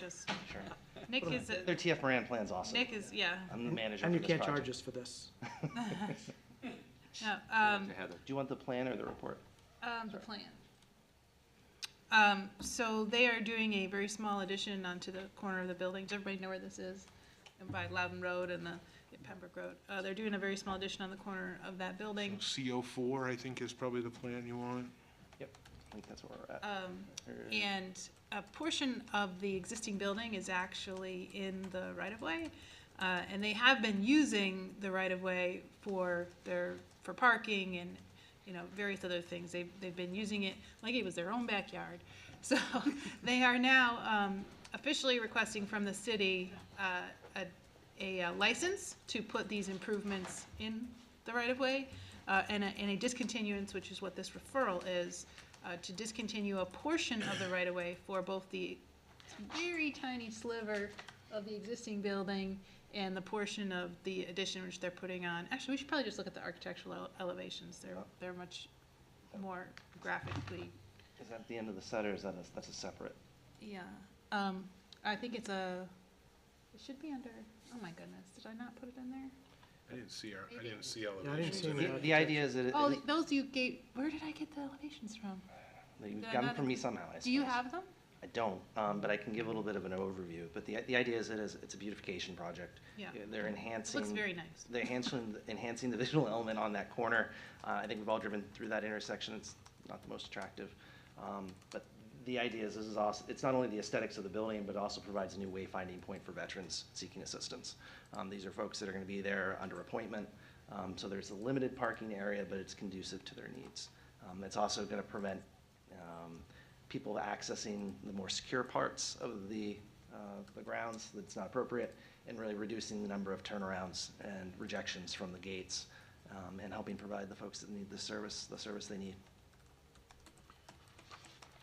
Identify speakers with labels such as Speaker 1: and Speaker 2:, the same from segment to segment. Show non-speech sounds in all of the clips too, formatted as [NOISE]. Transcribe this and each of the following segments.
Speaker 1: just,
Speaker 2: Sure.
Speaker 1: Nick is, a-
Speaker 2: Uh, Their TF Moran plan's awesome.
Speaker 1: Nick is, yeah,
Speaker 2: I'm the manager
Speaker 3: And
Speaker 2: for
Speaker 3: you
Speaker 2: this
Speaker 3: can't
Speaker 2: project.
Speaker 3: charge us for this.
Speaker 1: no, um,
Speaker 4: to Heather.
Speaker 2: Do you want the plan or the report?
Speaker 1: um, the plan. Um, so they are doing a very small addition onto the corner of the building, does everybody know where this is? By Loudon Road and the Pembroke Road, uh, they're doing a very small addition on the corner of that building.
Speaker 5: CO four, I think, is probably the plan you want.
Speaker 2: Yep, I think that's where we're at.
Speaker 1: Um,
Speaker 2: Or-
Speaker 1: And a portion of the existing building is actually in the right-of-way. Uh, and they have been using the right-of-way for their, for parking and, you know, various other things. They've, they've been using it like it was their own backyard. [LAUGHS] So they are now, um, officially requesting from the city, uh, a a uh, license to put these improvements in the right-of-way, uh, and a, and a discontinuance, which is what this referral is, uh, to discontinue a portion
Speaker 2: [COUGHS]
Speaker 1: of the right-of-way for both the very tiny sliver of the existing building and the portion of the addition which they're putting on. Actually, we should probably just look at the architectural ele- elevations. They're, they're much more graphically,
Speaker 2: Is that the end of the set or is that, a- that's a separate?
Speaker 1: yeah. Um, I think it's a, it should be under, oh my goodness, did I not put it in there?
Speaker 5: I didn't see our, I
Speaker 1: Maybe.
Speaker 5: didn't see
Speaker 3: Yeah, I didn't
Speaker 5: elevations
Speaker 3: see
Speaker 5: in
Speaker 3: any
Speaker 5: it.
Speaker 2: The the idea is that it,
Speaker 1: Oh,
Speaker 2: it-
Speaker 1: those you gave, where did I get the elevations from?
Speaker 2: that you've
Speaker 1: they're
Speaker 2: gotten
Speaker 1: not
Speaker 2: from me
Speaker 1: included.
Speaker 2: somehow, I
Speaker 1: Do you
Speaker 2: suppose.
Speaker 1: have them?
Speaker 2: I don't, um, but I can give a little bit of an overview. But the, the idea is it is, it's a beautification project.
Speaker 1: Yeah.
Speaker 2: They're
Speaker 1: It
Speaker 2: enhancing.
Speaker 1: looks very nice.
Speaker 2: They're enhancing, enhancing the visual element on that corner. Uh, I think we've all driven through that intersection, it's not the most attractive. Um, but the idea is this is also, it's not only the aesthetics of the building, but it also provides a new wayfinding point for veterans seeking assistance. Um, these are folks that are gonna be there under appointment, um, so there's a limited parking area, but it's conducive to their needs. Um, it's also gonna prevent, um, people accessing the more secure parts of the, uh, the grounds that's not appropriate, and really reducing the number of turnarounds and rejections from the gates, um, and helping provide the folks that need the service, the service they need.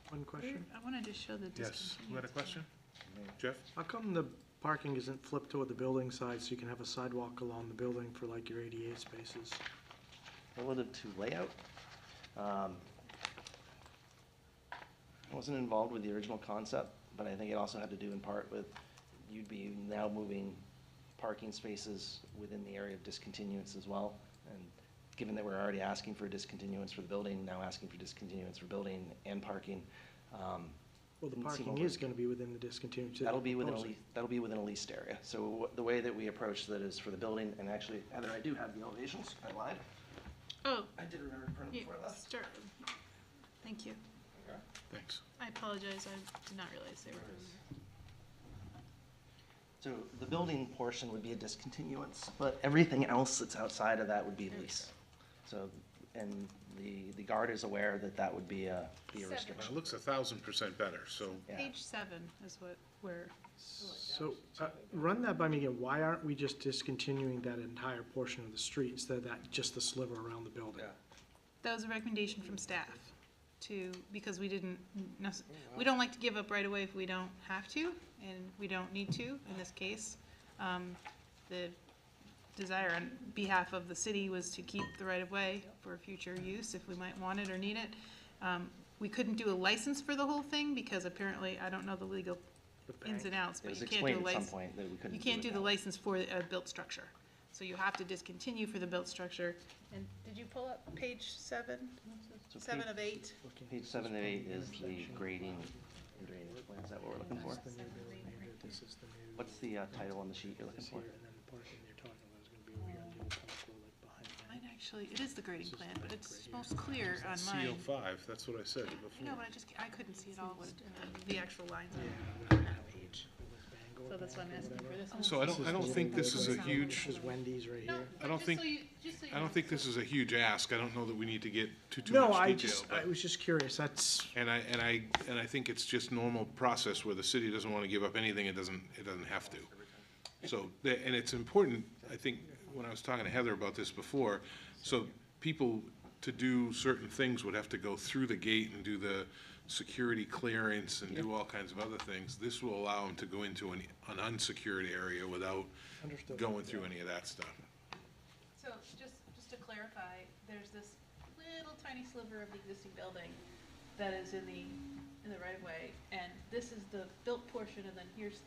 Speaker 3: One
Speaker 1: Where-
Speaker 3: question.
Speaker 1: I wanted to show the
Speaker 5: Yes,
Speaker 1: discontinuance.
Speaker 5: you had a question? Jeff?
Speaker 3: How come the parking isn't flipped toward the building side so you can have a sidewalk along the building for like your ADA spaces?
Speaker 2: Relative to layout, um, I wasn't involved with the original concept, but I think it also had to do in part with, you'd be now moving parking spaces within the area of discontinuance as well. And given that we're already asking for discontinuance for the building, now asking for discontinuance for building and parking, um,
Speaker 3: Well, the
Speaker 2: Didn't seem
Speaker 3: parking
Speaker 2: over-
Speaker 3: is gonna be within the discontinuance. that
Speaker 2: That'll be within a
Speaker 3: proposing.
Speaker 2: leased, that'll be within a leased area. So wh- the way that we approach that is for the building, and actually, Heather, I do have the elevations, I lied.
Speaker 1: Oh,
Speaker 2: I did remember to print them
Speaker 1: yeah,
Speaker 2: before I left.
Speaker 1: start. Thank you.
Speaker 5: Thanks.
Speaker 1: I apologize, I did not realize they were in there.
Speaker 2: So the building portion would be a discontinuance, but everything else that's outside of that would be
Speaker 1: There we
Speaker 2: lease. So, and the, the guard is aware that that would be a, be a
Speaker 1: Seven.
Speaker 5: Well,
Speaker 2: restriction.
Speaker 5: it looks a thousand percent better, so
Speaker 2: Yeah.
Speaker 1: Page seven is what we're,
Speaker 3: So, uh, run that by me again. Why aren't we just discontinuing that entire portion of the street instead of that, just the sliver around the building?
Speaker 1: that was a recommendation from staff to, because we didn't, nec-
Speaker 2: Oh,
Speaker 1: we don't like to give up right away if we don't have to, and we don't need to in this case. Um, The desire on behalf of the city was to keep the right-of-way for future use if we might want it or need it. Um, We couldn't do a license for the whole thing because apparently, I don't know the legal ins and outs,
Speaker 2: It
Speaker 1: but
Speaker 2: was
Speaker 1: you can't do a
Speaker 2: explained at some
Speaker 1: license.
Speaker 2: point that we couldn't
Speaker 1: You
Speaker 2: do
Speaker 1: can't do
Speaker 2: it
Speaker 1: the
Speaker 2: now.
Speaker 1: license for a built structure. So you have to discontinue for the built structure. And did you pull up page seven,
Speaker 2: So
Speaker 1: seven
Speaker 2: page-
Speaker 1: of eight?
Speaker 2: Page seven and eight is the grading and drainage plan, is that what we're looking for?
Speaker 3: This is the new building here, this is the new-
Speaker 2: What's the uh, title on the sheet you're looking
Speaker 3: This
Speaker 2: for?
Speaker 3: here, and then the parking you're talking about is gonna be over here on the old Pembroke Road, like behind that.
Speaker 1: Mine actually, it is the grading
Speaker 3: This is
Speaker 1: plan,
Speaker 3: the
Speaker 1: but
Speaker 3: back
Speaker 1: it's
Speaker 3: right here.
Speaker 1: most clear on
Speaker 5: CO
Speaker 1: mine.
Speaker 5: five, that's what I
Speaker 1: I
Speaker 5: said
Speaker 1: know,
Speaker 5: before.
Speaker 1: but I just, ca- I couldn't see it all, what, the actual lines
Speaker 3: Yeah,
Speaker 1: on
Speaker 3: whatever
Speaker 1: that page.
Speaker 3: it was, Bangor
Speaker 1: So that's why I'm
Speaker 3: Bank or
Speaker 1: asking for
Speaker 3: whatever.
Speaker 1: this one.
Speaker 5: So I don't, I don't think this is a huge,
Speaker 3: This is Wendy's right
Speaker 1: No,
Speaker 3: here.
Speaker 5: I don't
Speaker 1: just
Speaker 5: think-
Speaker 1: so you- just so you
Speaker 5: I
Speaker 1: know.
Speaker 5: don't think this is a huge ask. I don't know that we need to get too, too
Speaker 3: No,
Speaker 5: much
Speaker 3: I
Speaker 5: detail.
Speaker 3: just, I
Speaker 5: but-
Speaker 3: was just curious, that's,
Speaker 5: And I, and I, and I think it's just normal process where the city doesn't want to give up anything it doesn't, it doesn't have to. So, the- and it's important, I think, when I was talking to Heather about this before, so people to do certain things would have to go through the gate and do the security clearance and do all kinds of other things. This will allow them to go into an, an unsecured area without going through any of that stuff.
Speaker 1: So just, just to clarify, there's this little tiny sliver of the existing building that is in the, in the right of way, and this is the built portion, and then here's the